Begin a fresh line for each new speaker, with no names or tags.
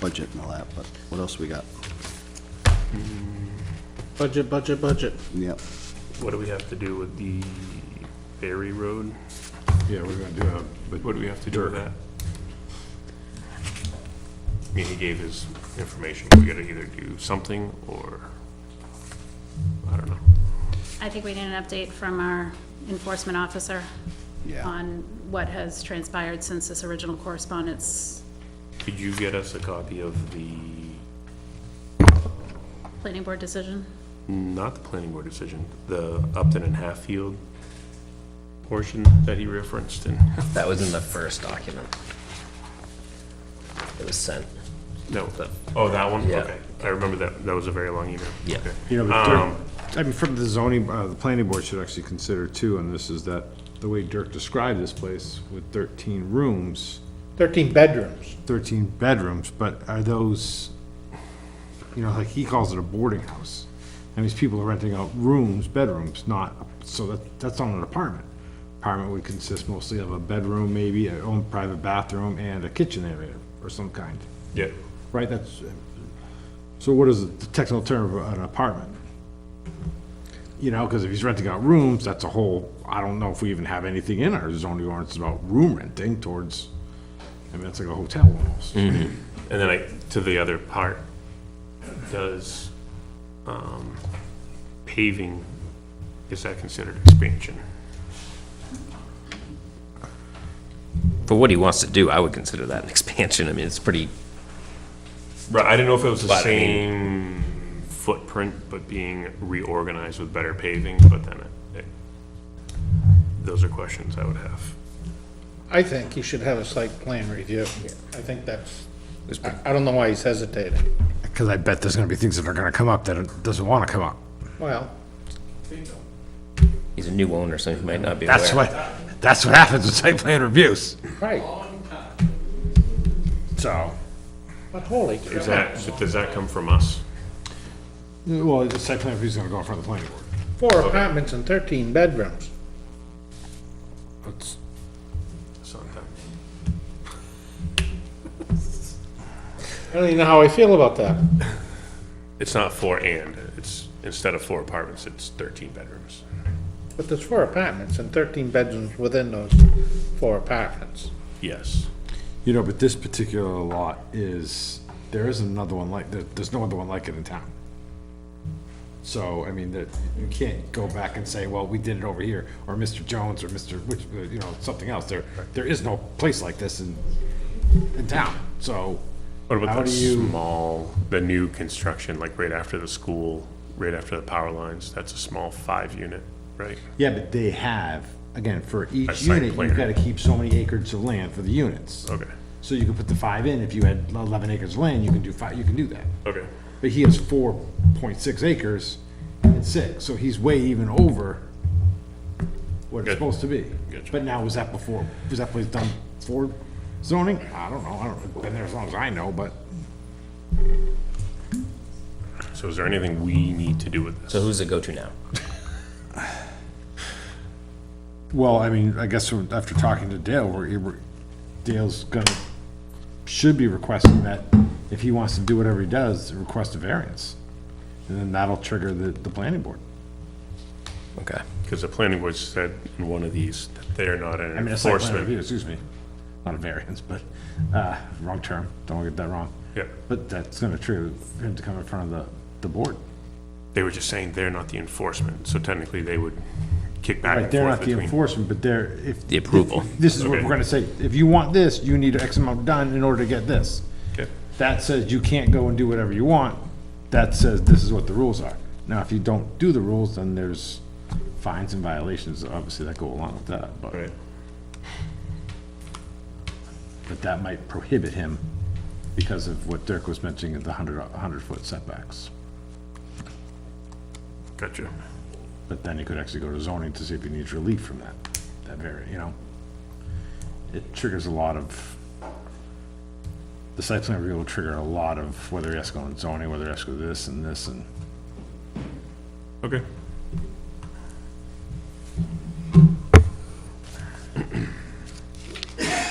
budget and all that, but what else we got?
Budget, budget, budget.
Yep.
What do we have to do with the Berry Road?
Yeah, we're gonna do a, but
What do we have to do with
Dirk.
that? I mean, he gave his information, we gotta either do something or, I don't know.
I think we need an update from our enforcement officer
Yeah.
on what has transpired since this original correspondence,
Could you get us a copy of the,
planning board decision.
not the planning board decision, the Upton and Hatfield portion that he referenced and
That was in the first document. It was sent.
no, oh, that one?
Yeah.
Okay, I remember that, that was a very long email.
Yeah.
Okay.
You know, but Dirk-
Um,
I mean, from the zoning, uh, the planning board should actually consider too, and this is that, the way Dirk described this place with thirteen rooms,
Thirteen bedrooms.
thirteen bedrooms, but are those, you know, like he calls it a boarding house. And these people are renting out rooms, bedrooms, not, so that, that's not an apartment. Apartment would consist mostly of a bedroom, maybe, a own private bathroom, and a kitchen area or some kind.
Yeah,
Right, that's, so what is the technical term of an apartment? You know, because if he's renting out rooms, that's a whole, I don't know if we even have anything in our zoning ordinance about room renting towards, I mean, that's like a hotel almost.
and then I, to the other part, does, um, paving, is that considered expansion?
For what he wants to do, I would consider that an expansion. I mean, it's pretty,
Right, I didn't know if it was the
But I mean-
same footprint, but being reorganized with better paving, but then it, it, those are questions I would have.
I think he should have a site plan review. I think that's, I- I don't know why he's hesitating.
Because I bet there's gonna be things that are gonna come up that it doesn't want to come up.
Well,
he's a new owner, so he might not be aware.
That's what, that's what happens with site plan reviews.
right,
So.
but holy cow,
Is that, so does that come from us?
Well, the site plan review's gonna go in front of the planning board.
four apartments and thirteen bedrooms.
That's-
Sometimes.
I don't even know how I feel about that.
It's not four and, it's, instead of four apartments, it's thirteen bedrooms.
But there's four apartments and thirteen bedrooms within those four apartments.
Yes.
You know, but this particular lot is, there isn't another one like, there, there's no other one like it in town. So, I mean, that, you can't go back and say, well, we did it over here, or Mr. Jones, or Mr., which, uh, you know, something else, there, there is no place like this in, in town, so.
What
How
about the
do you-
small, the new construction, like right after the school, right after the power lines, that's a small five unit, right?
Yeah, but they have, again, for
A
each
site
unit,
plan.
you've gotta keep so many acres of land for the units.
Okay,
So you could put the five in, if you had eleven acres of land, you can do five, you can do that.
okay,
But he has four point six acres and six, so he's way even over what
Good.
it's supposed to be.
Gotcha.
But now, was that before, was that place done for zoning? I don't know, I don't, been there as long as I know, but
so is there anything we need to do with this?
So who's it go to now?
Well, I mean, I guess we're- after talking to Dale, we're, we're- Dale's gonna, should be requesting that if he wants to do whatever he does, request a variance. And then that'll trigger the, the planning board.
Okay.
Because the planning board said in one of these that they're not
I
an
mean, a site plan
enforcement.
review, excuse me, not a variance, but, uh, wrong term, don't get that wrong.
Yeah,
But that's gonna trigger him to come in front of the, the board.
they were just saying they're not the enforcement, so technically they would kick back
Right,
and
they're
forth
not the
between.
enforcement, but they're, if.
The approval.
This is what
Okay.
we're gonna say, if you want this, you need X amount done in order to get this.
Yeah.
That says you can't go and do whatever you want, that says this is what the rules are. Now, if you don't do the rules, then there's fines and violations, obviously, that go along with that, but,
Right,
but that might prohibit him because of what Dirk was mentioning, of the hundred, hundred foot setbacks.
gotcha.
But then he could actually go to zoning to see if he needs relief from that, that very, you know? It triggers a lot of, the site plan review will trigger a lot of whether he has to go on zoning, whether he has to go this and this and,
Okay,